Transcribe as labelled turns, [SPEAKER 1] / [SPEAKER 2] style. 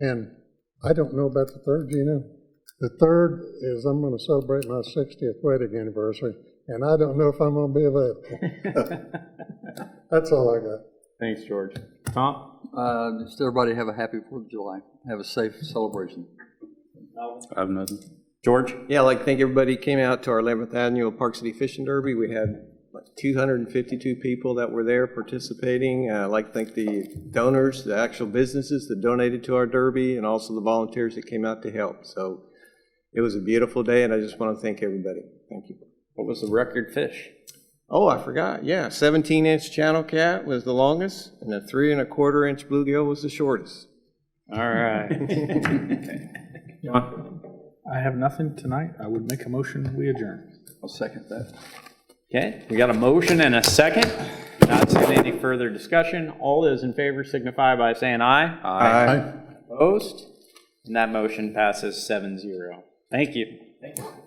[SPEAKER 1] And I don't know about the third, Gina. The third is I'm going to celebrate my 60th wedding anniversary, and I don't know if I'm going to be available. That's all I got.
[SPEAKER 2] Thanks, George. Tom?
[SPEAKER 3] Uh, Just everybody have a happy Fourth of July. Have a safe celebration.
[SPEAKER 2] I have nothing. George?
[SPEAKER 4] Yeah, I'd like, to thank everybody who came out to our 11th Annual Park City Fishing Derby. We had like 252 people that were there participating. Uh, I'd like to thank the donors, the actual businesses that donated to our derby, and also the volunteers that came out to help. So it was a beautiful day, and I just want to thank everybody. Thank you.
[SPEAKER 2] What was the record fish?
[SPEAKER 4] Oh, I forgot, yeah, 17-inch channel cat was the longest, and a three and a quarter inch bluegill was the shortest.
[SPEAKER 2] All right. John?
[SPEAKER 5] I have nothing tonight. I would make a motion, we adjourn.
[SPEAKER 3] I'll second that.
[SPEAKER 2] Okay, we got a motion and a second. Not seeing any further discussion. All those in favor signify by saying aye. Aye. Opposed? And that motion passes 7-0. Thank you.